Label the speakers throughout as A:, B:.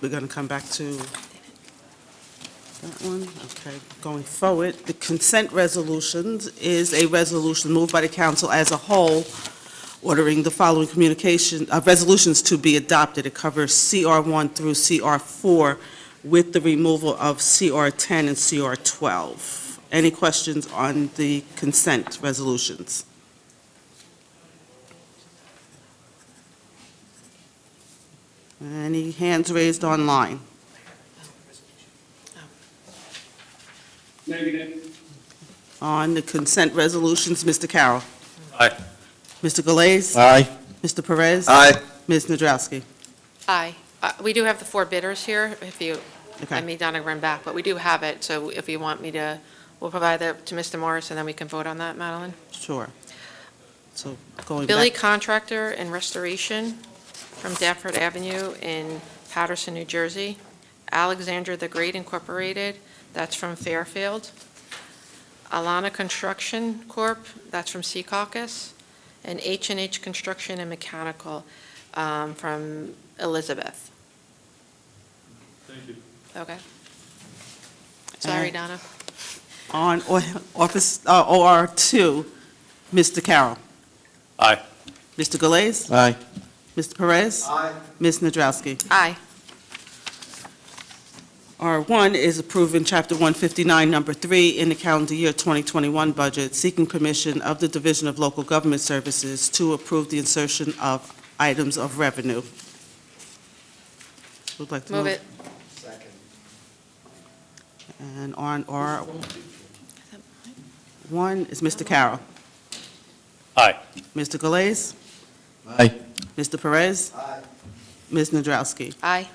A: We're going to come back to that one, okay. Going forward, the consent resolutions is a resolution moved by the council as a whole, ordering the following communication, uh, resolutions to be adopted. It covers CR one through CR four with the removal of CR ten and CR twelve. Any questions on the consent resolutions? Any hands raised online?
B: Negative.
A: On the consent resolutions, Mr. Carroll.
B: Aye.
A: Mr. Galais.
B: Aye.
A: Mr. Perez.
B: Aye.
A: Ms. Nadrowski.
C: Aye. Uh, We do have the four bidders here, if you, I
A: Okay,
C: may not have run back, but we do have it, so if you want me to, we'll provide that to Mr. Morris, and then we can vote on that, Madeline.
A: sure. So going
C: Billy
A: back,
C: Contractor and Restoration from Dafford Avenue in Patterson, New Jersey. Alexander the Great Incorporated, that's from Fairfield. Alana Construction Corp., that's from Sea Caucus. And h and H Construction and Mechanical um, from Elizabeth.
B: Thank you.
C: Okay? Sorry,
A: Uh,
C: Donna.
A: on O- Office, uh, OR2, Mr. Carroll.
B: Aye.
A: Mr. Galais.
B: Aye.
A: Mr. Perez.
B: Aye.
A: Ms. Nadrowski.
C: Aye.
A: R1 is approving Chapter 159, Number 3, in the calendar year 2021 budget, seeking permission of the Division of Local Government Services to approve the insertion of items of revenue. Would like to
C: Move it.
B: Second.
A: And on R1 is Mr. Carroll.
B: Aye.
A: Mr. Galais,
B: Aye.
A: Mr. Perez,
B: Aye.
A: Ms. Nadrowski.
C: Aye.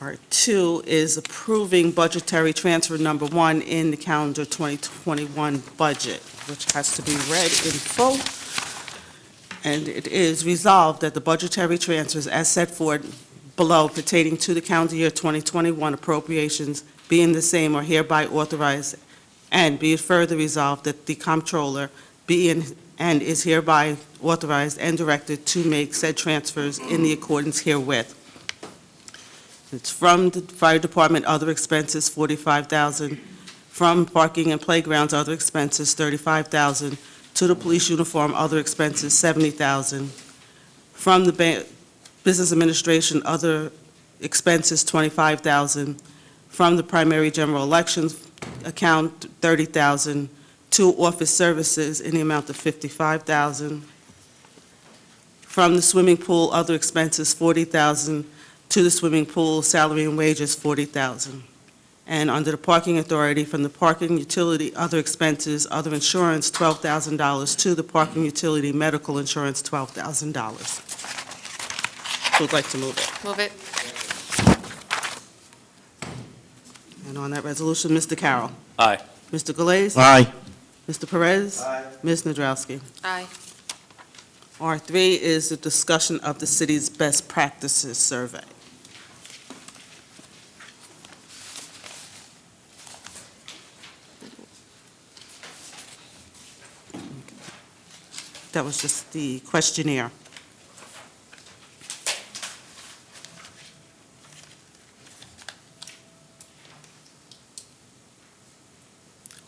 A: R2 is approving budgetary transfer number one in the calendar 2021 budget, which has to be read in full. And it is resolved that the budgetary transfers as set forth below pertaining to the calendar year 2021 appropriations being the same are hereby authorized, and be it further resolved that the comptroller be in- and is hereby authorized and directed to make said transfers in the accordance herewith. It's from the fire department, other expenses, forty-five thousand. From parking and playgrounds, other expenses, thirty-five thousand. To the police uniform, other expenses, seventy thousand. From the ba- business administration, other expenses, twenty-five thousand. From the primary general elections account, thirty thousand. To office services in the amount of fifty-five thousand. From the swimming pool, other expenses, forty thousand to the swimming pool, salary and wages, forty thousand. And under the parking authority, from the parking utility, other expenses, other insurance, twelve thousand dollars, to the parking utility, medical insurance, twelve thousand dollars. Would like to move it.
C: Move it.
A: And on that resolution, Mr. Carroll.
B: Aye.
A: Mr. Galais.
B: Aye.
A: Mr. Perez.
B: Aye.
A: Ms. Nadrowski.
C: Aye.
A: R3 is the discussion of the city's best practices survey. That was just the questionnaire.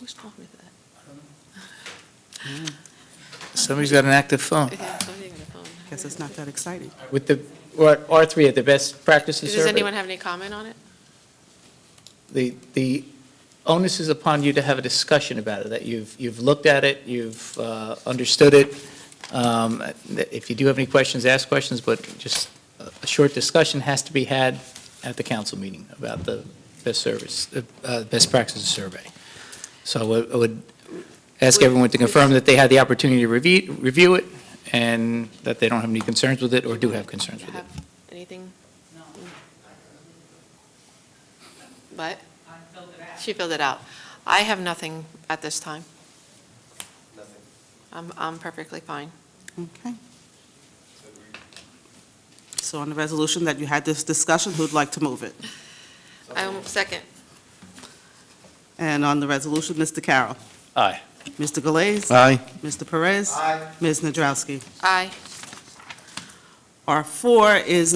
C: Who's told me that?
D: Somebody's got an active phone.
C: Yeah, somebody on the phone.
A: Guess it's not that exciting.
E: With the, or- R3 at the best practices
C: Does
E: survey.
C: anyone have any comment on it?
E: The, the onus is upon you to have a discussion about it, that you've, you've looked at it, you've uh, understood it. Um, If you do have any questions, ask questions, but just a a short discussion has to be had at the council meeting about the best service, uh, uh, best practices survey. So I would- I would ask everyone to confirm that they had the opportunity to review, review it, and that they don't have any concerns with it, or do have concerns with it.
C: Have anything? No. What? She filled it out. I have nothing at this time. Nothing. I'm, I'm perfectly fine.
A: Okay. So on the resolution that you had this discussion, who'd like to move it?
C: I'm second.
A: And on the resolution, Mr. Carroll.
B: Aye.
A: Mr. Galais.
B: Aye.
A: Mr. Perez.
B: Aye.
A: Ms. Nadrowski.
C: Aye.
A: R4 is